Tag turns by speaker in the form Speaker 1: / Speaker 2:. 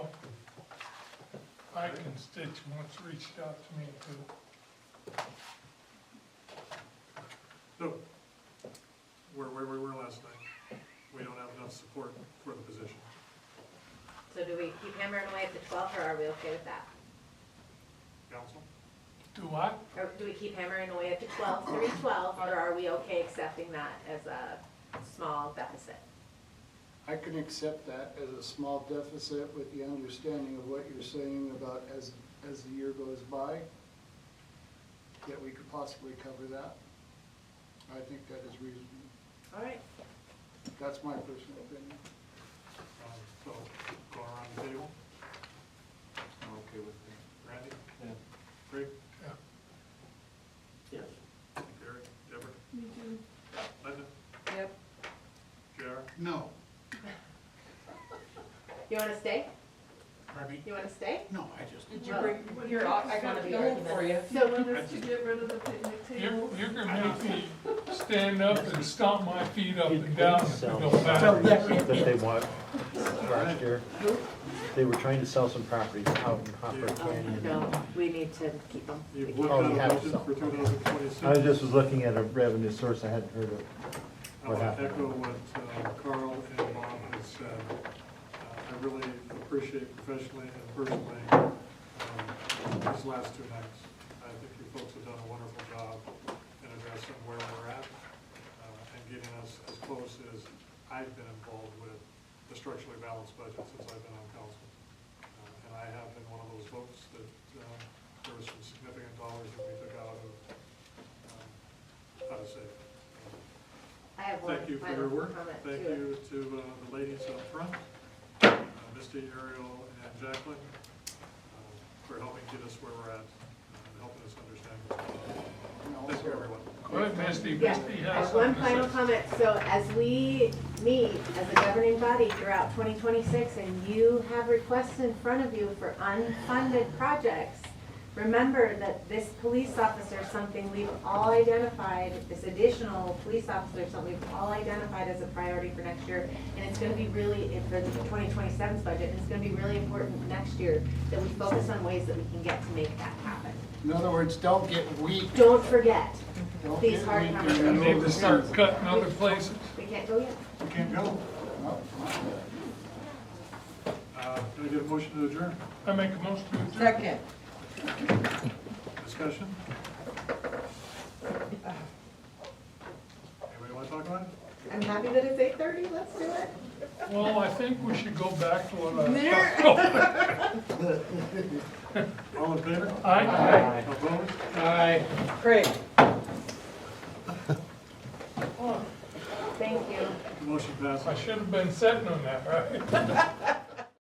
Speaker 1: my constituents reached out to me too.
Speaker 2: No, we're where we were last night. We don't have enough support for the position.
Speaker 3: So do we keep hammering away at the twelve, or are we okay with that?
Speaker 2: Council?
Speaker 1: Do I?
Speaker 3: Or do we keep hammering away at the twelve, three twelve, or are we okay accepting that as a small deficit?
Speaker 4: I can accept that as a small deficit with the understanding of what you're saying about as, as the year goes by, that we could possibly cover that. I think that is reasonable.
Speaker 3: All right.
Speaker 4: That's my personal opinion.
Speaker 2: Um, So, go around the table.
Speaker 5: I'm okay with that.
Speaker 2: Randy?
Speaker 5: Yeah.
Speaker 2: Greg?
Speaker 1: Yeah.
Speaker 5: Yes.
Speaker 2: Gary? Deborah? Me too. Linda?
Speaker 3: Yep.
Speaker 2: JR?
Speaker 6: No,
Speaker 3: You wanna stay?
Speaker 6: pardon me?
Speaker 3: You wanna stay?
Speaker 6: No, I just,
Speaker 7: Did you bring, here, I
Speaker 3: Wanna
Speaker 7: got
Speaker 3: be
Speaker 7: the old for you.
Speaker 8: So want us to get rid of the picnic
Speaker 1: You,
Speaker 8: table?
Speaker 1: you can make me stand up and stomp my feet up and down if it don't matter.
Speaker 9: that they want last year. They were trying to sell some properties out in Hopper Canyon.
Speaker 3: Oh, No, we need to keep them.
Speaker 2: You've
Speaker 9: Oh,
Speaker 2: looked
Speaker 9: you
Speaker 2: at a
Speaker 9: have
Speaker 2: budget
Speaker 9: some.
Speaker 2: for two thousand twenty-six.
Speaker 9: I was just was looking at a revenue source I hadn't heard of.
Speaker 2: I'll
Speaker 9: What happened?
Speaker 2: echo what uh, Carl and Bob has said. Uh, I really appreciate professionally and personally um, these last two nights. I think you folks have done a wonderful job in addressing where we're at uh, and getting us as close as I've been involved with the structurally balanced budget since I've been on council. Uh, And I have been one of those folks that uh, there was some significant dollars that we took out of, um, how to say, it, um,
Speaker 3: I have one
Speaker 2: Thank you for
Speaker 3: final
Speaker 2: your work.
Speaker 3: comment
Speaker 2: Thank
Speaker 3: too.
Speaker 2: you to uh, the ladies up front, uh, Misty, Ariel, and Jacqueline, uh, for helping get us where we're at, uh, and helping us understand.
Speaker 4: And
Speaker 2: Thank you,
Speaker 4: also,
Speaker 2: everyone.
Speaker 1: Go ahead, Misty,
Speaker 3: Yeah,
Speaker 1: Misty
Speaker 3: I
Speaker 1: has
Speaker 3: have one
Speaker 1: something
Speaker 3: final
Speaker 1: to say.
Speaker 3: comment. So as we meet as a governing body throughout 2026 and you have requests in front of you for unfunded projects, remember that this police officer, is something we've all identified, this additional police officer, is something we've all identified as a priority for next year. And it's going to be really, for the 2027's budget, and it's going to be really important next year that we focus on ways that we can get to make that happen.
Speaker 4: In other words, don't get weak.
Speaker 3: Don't forget,
Speaker 4: Don't
Speaker 3: These
Speaker 4: get
Speaker 3: hard
Speaker 4: weak
Speaker 3: numbers.
Speaker 4: in the
Speaker 1: You
Speaker 4: middle
Speaker 1: need
Speaker 4: of
Speaker 1: to
Speaker 4: the
Speaker 1: start
Speaker 4: season.
Speaker 1: cutting other places.
Speaker 3: we can't go yet.
Speaker 2: We can't go.
Speaker 4: No, no.
Speaker 2: Uh, Can I get a motion to adjourn?
Speaker 1: I make a motion to adjourn.
Speaker 7: Second.
Speaker 2: Discussion? Anybody want to talk about it?
Speaker 3: I'm happy that it's 8:30, let's do it.
Speaker 1: Well, I think we should go back to what I.
Speaker 2: All in favor?
Speaker 1: Aye.
Speaker 2: Opposed?
Speaker 1: Aye.
Speaker 7: Great.
Speaker 3: Thank you.
Speaker 2: Motion passes.
Speaker 1: I should have been sitting on that, right?